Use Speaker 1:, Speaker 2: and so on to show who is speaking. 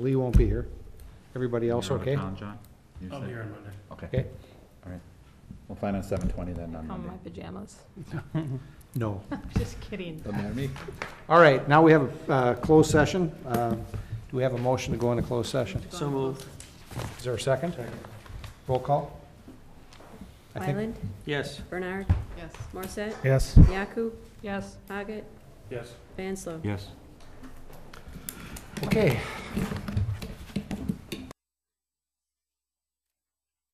Speaker 1: Lee won't be here. Everybody else
Speaker 2: You're out of
Speaker 1: okay?
Speaker 2: town, John? You
Speaker 3: I'll
Speaker 2: said-
Speaker 3: be here Oh, on Monday.
Speaker 1: Okay.
Speaker 2: Okay, all right. We'll find out seven twenty then on
Speaker 4: Come in my
Speaker 2: Monday.
Speaker 4: pajamas.
Speaker 1: No.
Speaker 4: I'm just kidding.
Speaker 2: Doesn't matter to me.
Speaker 1: All right, now we have a uh, closed session. Uh, Do we have a motion to go into closed session?
Speaker 4: So moved.
Speaker 1: Is there a second? Roll call? I think-
Speaker 5: Wyland?
Speaker 3: Yes.
Speaker 5: Bernard?
Speaker 4: Yes.
Speaker 5: Morset?
Speaker 1: Yes.
Speaker 5: Yaku?
Speaker 4: Yes.
Speaker 5: Haggett?
Speaker 3: Yes.
Speaker 5: Vanslo?
Speaker 3: Yes.
Speaker 1: Okay,